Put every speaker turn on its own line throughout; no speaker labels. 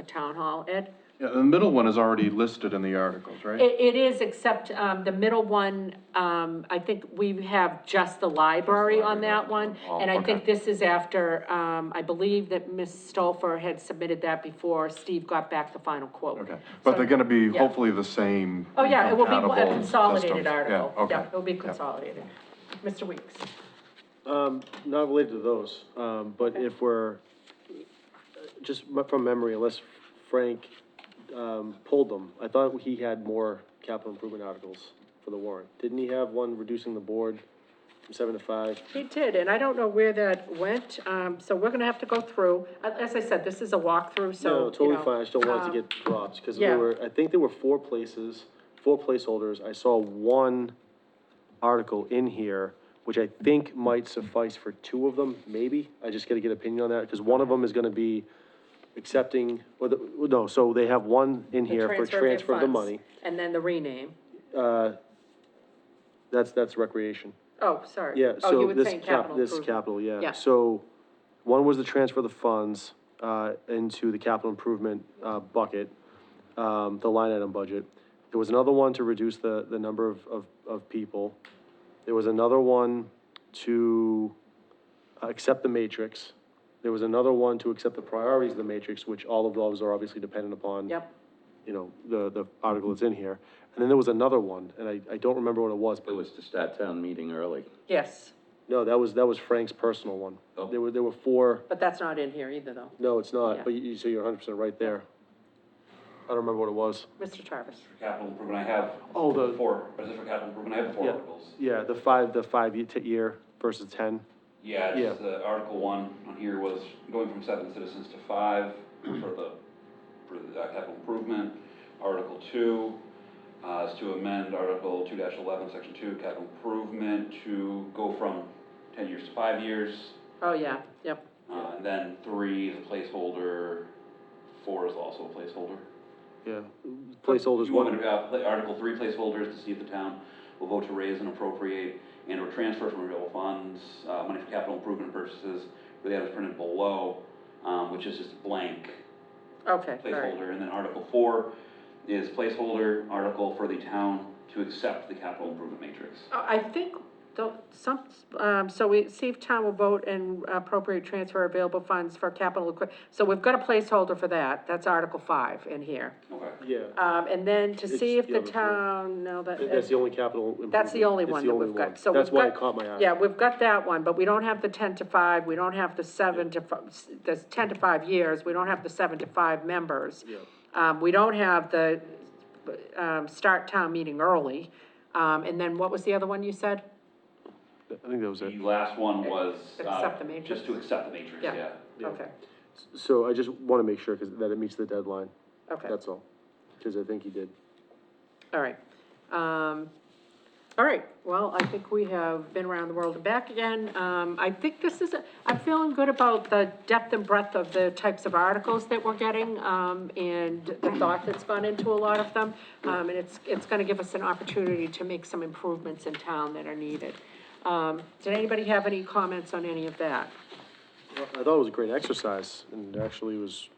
the town hall, Ed?
Yeah, the middle one is already listed in the articles, right?
It, it is, except, um, the middle one, um, I think we have just the library on that one.
Oh,
And I think
okay.
this is after, um, I believe that Ms. Stolfer had submitted that before Steve got back the final quote.
Okay, but they're gonna be
Yeah.
hopefully the same.
Oh, yeah, it will be a
compatible
consolidated
systems.
article.
Yeah, okay.
It'll be
Yeah.
consolidated. Mr. Weeks?
Um, not related to those, um, but if we're, just mu- from memory, unless Frank, um, pulled them, I thought he had more capital improvement articles for the warrant. Didn't he have one reducing the board from seven to five?
He did, and I don't know where that went, um, so we're gonna have to go through, A- as I said, this is a walkthrough, so,
No,
you
totally
know,
fine, I just don't want it
um,
to get dropped, because
yeah.
there were, I think there were four places, four placeholders, I saw one article in here, which I think might suffice for two of them, maybe, I just gotta get opinion on that, because one of them is gonna be accepting, or the, no, so they have one in
the
here for
their
transfer of the
funds,
money.
And then the rename.
Uh, that's, that's recreation.
Oh, sorry.
Yeah,
Oh, you
so
were
this
saying
cap, this
improvement.
capital,
Yeah.
yeah. So one was the transfer of the funds, uh, into the capital improvement, uh, bucket, um, the line item budget. There was another one to reduce the, the number of, of, of people. There was another one to uh, accept the matrix. There was another one to accept the priorities of the matrix, which all of those are obviously dependent upon
Yep,
you know, the, the article that's in here. And then there was another one, and I, I don't remember what it was,
It
but
was to start town meeting early.
yes,
no, that was, that was Frank's personal one.
Oh.
There were, there were four,
but that's not in here either, though.
no, it's
Yeah.
not, but you, so you're hundred percent right there. I don't remember what it was.
Mr. Travis?
capital improvement, I have.
Oh, the-
Four, residential capital improvement, I have the four
Yeah.
articles.
Yeah, the five, the five ye- t- year versus ten.
Yeah,
Yeah.
it's, uh, Article one on here was going from seven citizens to five for the, for the uh, capital improvement. Article two, uh, is to amend Article two eleven, section two, capital improvement, to go from ten years to five years.
Oh, yeah, yep.
Uh, and then three is a placeholder, four is also a placeholder.
Yeah, placeholders
You want me
one.
to, uh, pla- Article three placeholders to see if the town will vote to raise and appropriate and or transfer from available funds, uh, money for capital improvement purchases, for the items printed below, um, which is just blank
Okay, all right.
placeholder. And then Article four is placeholder article for the town to accept the capital improvement matrix.
Uh, I think, though, some, um, so we, see if town will vote and appropriate transfer available funds for capital equi, so we've got a placeholder for that, that's Article five in here.
Okay.
Yeah,
Um, and then to see if
It's the
the
other three.
town, no, that.
that's the only capital improvement.
That's the only
It's
one that we've got, so.
That's
we've
why it
got-
caught my eye.
Yeah, we've got that one, but we don't have the ten to five, we don't have the seven to, fi- s- the ten to five years, we don't have the seven to five members.
Yeah.
Um, we don't have the, um, start town meeting early, um, and then what was the other one you said?
I think that was it.
The last one was, uh,
Accept the matrix.
just to accept the matrix,
Yeah.
yeah.
Yeah.
Okay,
So I just wanna make sure, cause that it meets the deadline,
okay,
that's all. Cause I think he did.
all right. Um, all right, well, I think we have been around the world and back again, um, I think this is, a- I'm feeling good about the depth and breadth of the types of articles that we're getting, um, and the thought that's gone into a lot of them. Um, and it's, it's gonna give us an opportunity to make some improvements in town that are needed. Um, did anybody have any comments on any of that?
Well, I thought it was a great exercise, and it actually was,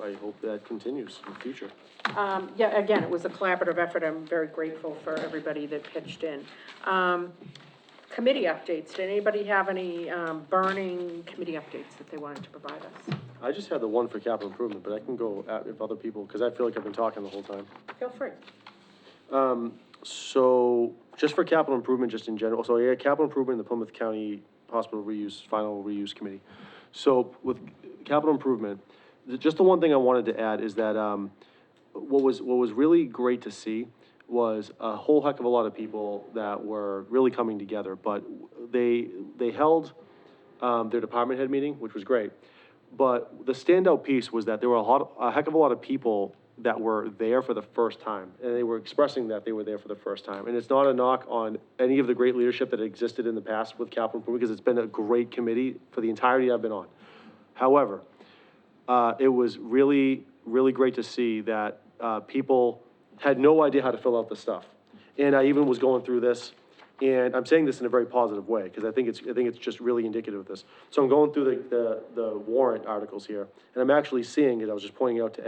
I, I hope that continues in the future.
Um, yeah, again, it was a collaborative effort, I'm very grateful for everybody that pitched in. Um, committee updates, did anybody have any, um, burning committee updates that they wanted to provide us?
I just had the one for capital improvement, but I can go at, if other people, because I feel like I've been talking the whole time.
Feel free.
So, just for capital improvement, just in general, so yeah, capital improvement in the Plymouth County Hospital Reuse, Final Reuse Committee. So with capital improvement, the- just the one thing I wanted to add is that, um, what was, what was really great to see was a whole heck of a lot of people that were really coming together, but they, they held, um, their department head meeting, which was great. But the standout piece was that there were a lot, a heck of a lot of people that were there for the first time, and they were expressing that they were there for the first time. And it's not a knock on any of the great leadership that existed in the past with capital improvement, because it's been a great committee for the entirety I've been on. However, uh, it was really, really great to see that uh, people had no idea how to fill out the stuff. And I even was going through this, And I'm saying this in a very positive way, because I think it's, I think it's just really indicative of this. So I'm going through the, the, the warrant articles here, and I'm actually seeing it, I was just pointing out to Ed.